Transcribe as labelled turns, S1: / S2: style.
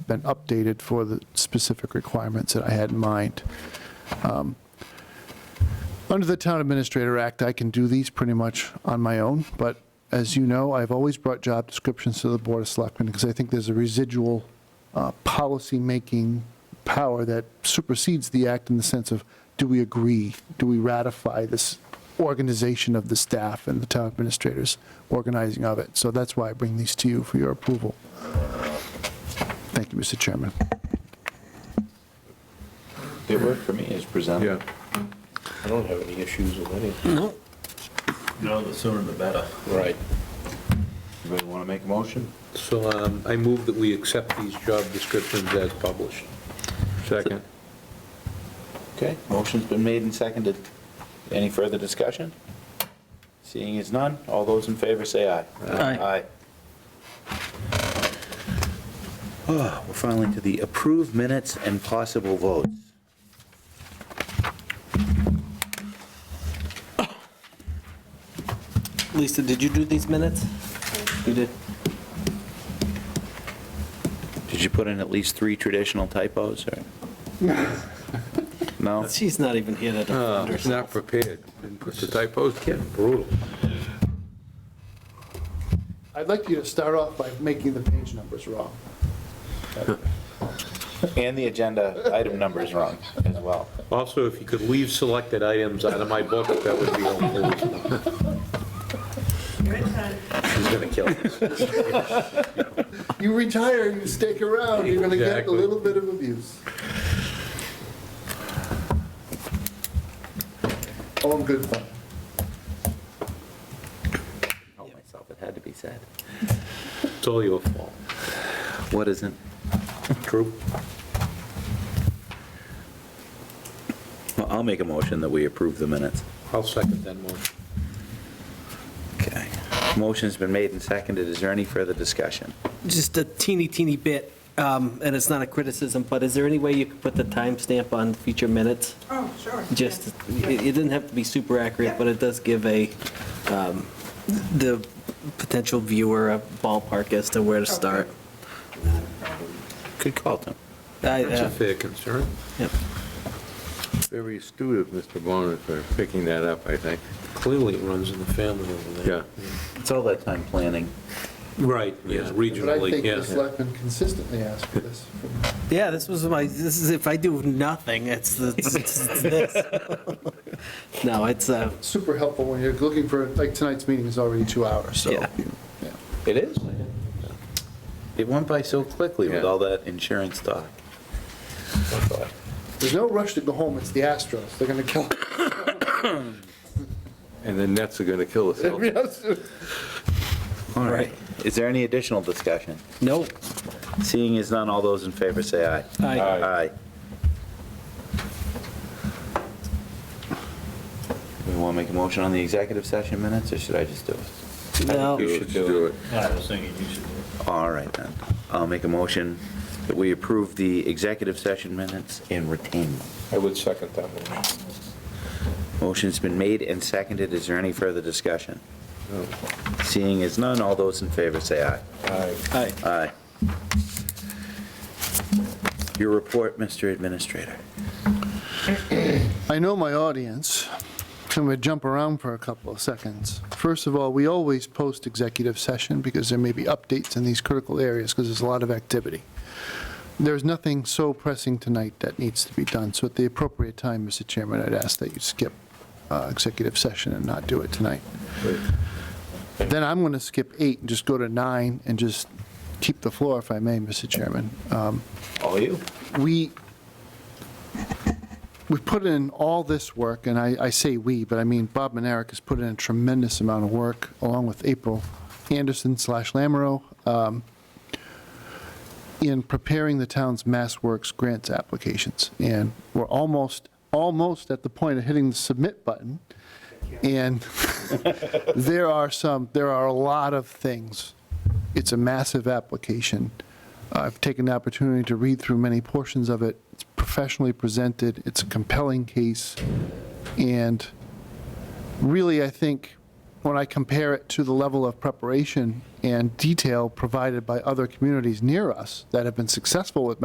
S1: been updated for the specific requirements that I had in mind. Um, Under the Town Administrator Act, I can do these pretty much on my own, but as you know, I've always brought job descriptions to the Board of Selectmen because I think there's a residual uh, policymaking power that supersedes the act in the sense of, do we agree? Do we ratify this organization of the staff and the town administrators organizing of it? So that's why I bring these to you for your approval. Thank you, Mr. Chairman.
S2: It worked for me as presented.
S3: Yeah.
S4: I don't have any issues with any.
S2: No, the sooner the better.
S4: Right.
S2: Anybody want to make a motion?
S4: So um, I move that we accept these job descriptions as published.
S3: Second.
S2: Okay, motion's been made and seconded. Any further discussion? Seeing as none, all those in favor say aye.
S5: Aye.
S2: Ah, We're finally to the approved minutes and possible votes.
S5: Lisa, did you do these minutes?
S2: You did? Did you put in at least three traditional typos, or? No?
S5: She's not even here to defend
S4: It's not
S5: herself.
S4: prepared. And put the typos, getting brutal.
S1: I'd like you to start off by making the page numbers wrong.
S2: And the agenda item number is wrong as well.
S4: Also, if you could leave selected items out of my book, that would be helpful. She's gonna kill us.
S1: You retire, you stick around, you're going to get a
S4: Exactly.
S1: little bit of abuse. Oh, I'm good fun.
S2: Help myself, it had to be said.
S4: It's all your fault.
S2: What isn't?
S4: True.
S2: Well, I'll make a motion that we approve the minutes.
S4: I'll second that motion.
S2: Okay. Motion's been made and seconded. Is there any further discussion?
S5: Just a teeny, teeny bit, um, and it's not a criticism, but is there any way you could put the timestamp on future minutes?
S6: Oh, sure.
S5: Just,
S6: yes.
S5: it it doesn't have to be super accurate, but it does give a, um, the potential viewer a ballpark as to where to start.
S2: Good call, Tim.
S5: I-
S4: That's a
S5: uh,
S4: fair concern.
S5: yep.
S3: Very astute of Mr. Bonner for picking that up, I think.
S4: Clearly it runs in the family over there.
S2: It's all that time planning.
S4: Right, yeah,
S1: But I
S4: regionally,
S1: think
S4: yeah.
S1: the selectmen consistently ask for this.
S5: Yeah, this was my, this is, if I do nothing, it's the- it's this. No, it's, uh,
S1: Super helpful when you're looking for, like, tonight's meeting is already two hours, so.
S5: Yeah.
S1: Yeah.
S2: It is? It went by so quickly with
S3: Yeah.
S2: all that insurance talk.
S1: There's no rush to go home, it's the Astros, they're going to kill.
S3: And the nets are going to kill us. all.
S2: All right. Is there any additional discussion?
S5: nope.
S2: Seeing as none, all those in favor say aye.
S5: Aye.
S2: Aye. We want to make a motion on the executive session minutes, or should I just do it?
S5: No.
S3: You should do it.
S2: All right, then. I'll make a motion that we approve the executive session minutes and retain them.
S4: I would second that motion.
S2: Motion's been made and seconded. Is there any further discussion?
S3: No.
S2: Seeing as none, all those in favor say aye.
S5: Aye.
S2: Aye. Your report, Mr. Administrator.
S1: I know my audience. So I'm going to jump around for a couple of seconds. First of all, we always post executive session because there may be updates in these critical areas because there's a lot of activity. There's nothing so pressing tonight that needs to be done. So at the appropriate time, Mr. Chairman, I'd ask that you skip uh, executive session and not do it tonight. Then I'm going to skip eight and just go to nine and just keep the floor if I may, Mr. Chairman. Um,
S2: All you?
S1: we, we put in all this work, and I, I say we, but I mean, Bob and Eric has put in a tremendous amount of work, along with April Anderson slash Lamro, um, in preparing the town's Mass Works grants applications. And we're almost, almost at the point of hitting the submit button. And there are some, there are a lot of things. It's a massive application. I've taken the opportunity to read through many portions of it. It's professionally presented, it's a compelling case, and really, I think when I compare it to the level of preparation and detail provided by other communities near us that have been successful with